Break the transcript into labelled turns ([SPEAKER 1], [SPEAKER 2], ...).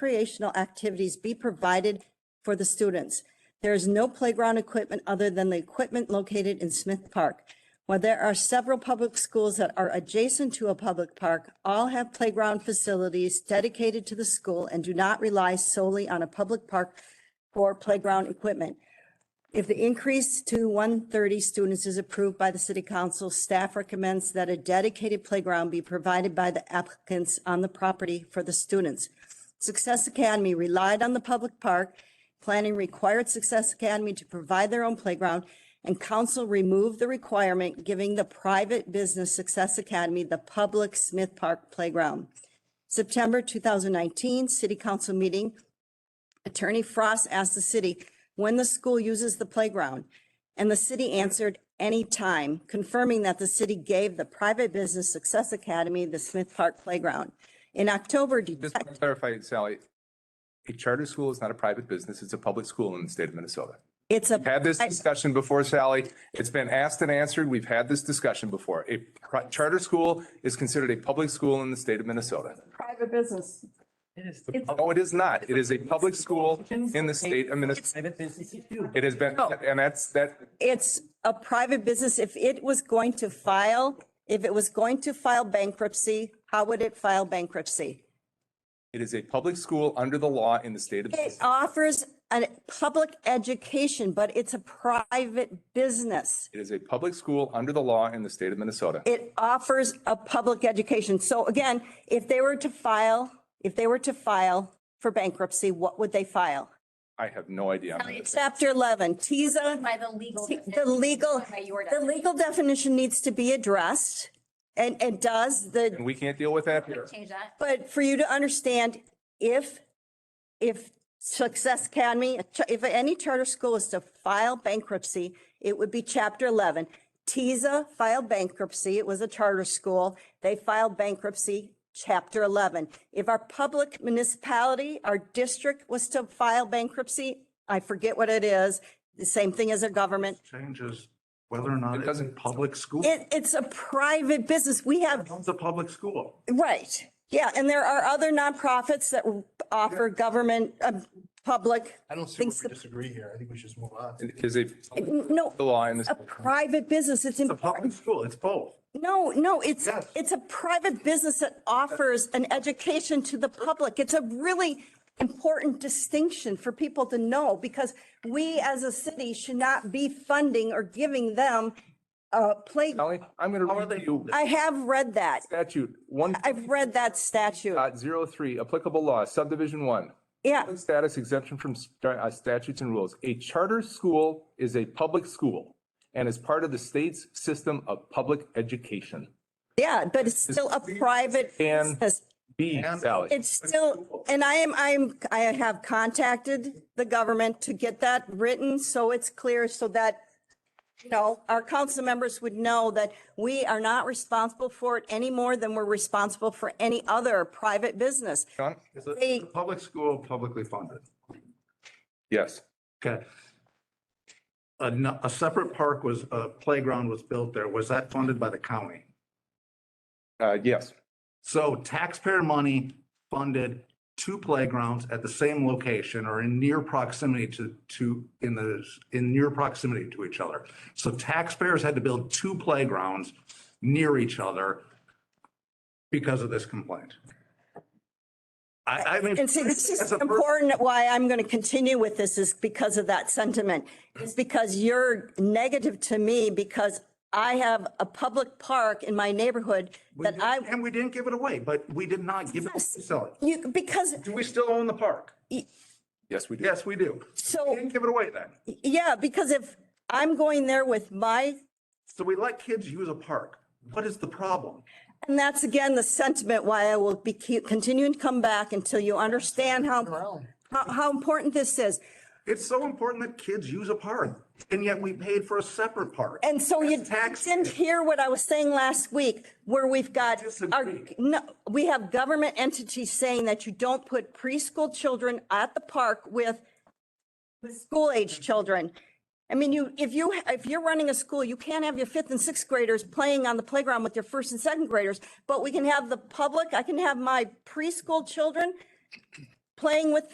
[SPEAKER 1] recreational activities be provided for the students. There is no playground equipment other than the equipment located in Smith Park. While there are several public schools that are adjacent to a public park, all have playground facilities dedicated to the school and do not rely solely on a public park for playground equipment. If the increase to 130 students is approved by the city council, staff recommends that a dedicated playground be provided by the applicants on the property for the students. Success Academy relied on the public park. Planning required Success Academy to provide their own playground, and council removed the requirement, giving the private business Success Academy the public Smith Park playground. September 2019, city council meeting, Attorney Frost asked the city when the school uses the playground, and the city answered any time, confirming that the city gave the private business Success Academy the Smith Park playground. In October,
[SPEAKER 2] Just to clarify, Sally, a charter school is not a private business. It's a public school in the state of Minnesota.
[SPEAKER 1] it's a,
[SPEAKER 2] Had this discussion before, Sally. It's been asked and answered. We've had this discussion before. A pri- charter school is considered a public school in the state of Minnesota.
[SPEAKER 3] private business.
[SPEAKER 2] No, it is not. It is a public school in the state of Minnesota.
[SPEAKER 4] Private businesses do.
[SPEAKER 2] It has been,
[SPEAKER 1] Oh.
[SPEAKER 2] and that's, that,
[SPEAKER 1] it's a private business. If it was going to file, if it was going to file bankruptcy, how would it file bankruptcy?
[SPEAKER 2] it is a public school under the law in the state of.
[SPEAKER 1] It offers a public education, but it's a private business.
[SPEAKER 2] It is a public school under the law in the state of Minnesota.
[SPEAKER 1] It offers a public education. So again, if they were to file, if they were to file for bankruptcy, what would they file?
[SPEAKER 2] I have no idea. on this.
[SPEAKER 1] Chapter 11, TISA.
[SPEAKER 5] By the legal.
[SPEAKER 1] The legal,
[SPEAKER 5] By your
[SPEAKER 1] the legal definition needs to be addressed and, and does the
[SPEAKER 2] And we can't deal with that here.
[SPEAKER 5] Change that.
[SPEAKER 1] But for you to understand, if, if Success Academy, if any charter school is to file bankruptcy, it would be chapter eleven. TISA filed bankruptcy. It was a charter school. They filed bankruptcy, chapter eleven. If our public municipality, our district was to file bankruptcy, I forget what it is, the same thing as a government.
[SPEAKER 6] changes whether or not
[SPEAKER 2] It
[SPEAKER 6] it's a
[SPEAKER 2] doesn't-
[SPEAKER 6] public school.
[SPEAKER 1] It, it's a private business. We have
[SPEAKER 6] It's a public school.
[SPEAKER 1] Right. Yeah, and there are other nonprofits that offer government, uh, public,
[SPEAKER 7] I don't see where
[SPEAKER 1] Thinks
[SPEAKER 7] we
[SPEAKER 1] the-
[SPEAKER 7] disagree here. I think we should just move on.
[SPEAKER 2] It is a
[SPEAKER 1] no,
[SPEAKER 2] the law in this.
[SPEAKER 1] a private business. It's,
[SPEAKER 6] It's a
[SPEAKER 1] in-
[SPEAKER 6] public school. It's both.
[SPEAKER 1] no, no, it's,
[SPEAKER 6] Yes.
[SPEAKER 1] it's a private business that offers an education to the public. It's a really important distinction for people to know because we as a city should not be funding or giving them a plate.
[SPEAKER 2] Sally, I'm going
[SPEAKER 6] How are
[SPEAKER 2] to
[SPEAKER 6] they-
[SPEAKER 2] read you
[SPEAKER 1] I have read that.
[SPEAKER 2] statute one
[SPEAKER 1] I've read that statute.
[SPEAKER 2] dot zero three, applicable law, subdivision one.
[SPEAKER 1] Yeah.
[SPEAKER 2] Public Status exemption from sta- uh, statutes and rules. A charter school is a public school and is part of the state's system of public education.
[SPEAKER 1] Yeah, but it's still a private
[SPEAKER 2] And-
[SPEAKER 1] business.
[SPEAKER 2] B, Sally,
[SPEAKER 1] It's still, and I am, I'm, I have contacted the government to get that written so it's clear so that, you know, our council members would know that we are not responsible for it any more than we're responsible for any other private business.
[SPEAKER 2] John?
[SPEAKER 6] It's a,
[SPEAKER 1] They-
[SPEAKER 6] it's a public school, publicly funded.
[SPEAKER 2] Yes.
[SPEAKER 6] Okay. A, n- a separate park was, a playground was built there. Was that funded by the county?
[SPEAKER 2] Uh, yes.
[SPEAKER 6] So taxpayer money funded two playgrounds at the same location or in near proximity to, to, in the, in near proximity to each other. So taxpayers had to build two playgrounds near each other because of this complaint. I, I mean.
[SPEAKER 1] And see, this
[SPEAKER 6] as
[SPEAKER 1] is
[SPEAKER 6] a per-
[SPEAKER 1] important, why I'm going to continue with this is because of that sentiment. It's because you're negative to me because I have a public park in my neighborhood
[SPEAKER 6] we
[SPEAKER 1] that
[SPEAKER 6] didn't-
[SPEAKER 1] I,
[SPEAKER 6] And we didn't give it away, but we did not give it, to sell it.
[SPEAKER 1] you, because,
[SPEAKER 6] Do we still own the park?
[SPEAKER 2] Yes, we do.
[SPEAKER 6] Yes, we do.
[SPEAKER 1] so.
[SPEAKER 6] We didn't give it away then.
[SPEAKER 1] Yeah, because if I'm going there with my,
[SPEAKER 6] So we let kids use a park. What is the problem?
[SPEAKER 1] and that's again the sentiment why I will be, keep- continue and come back until you understand how, how, how important this is.
[SPEAKER 6] It's so important that kids use a park, and yet we paid for a separate park.
[SPEAKER 1] And so you
[SPEAKER 6] Tax-
[SPEAKER 1] didn't hear what I was saying last week, where we've got our,
[SPEAKER 6] Disagree.
[SPEAKER 1] no, we have government entities saying that you don't put preschool children at the park with school age children. I mean, you, if you, if you're running a school, you can't have your fifth and sixth graders playing on the playground with your first and second graders, but we can have the public, I can have my preschool children playing with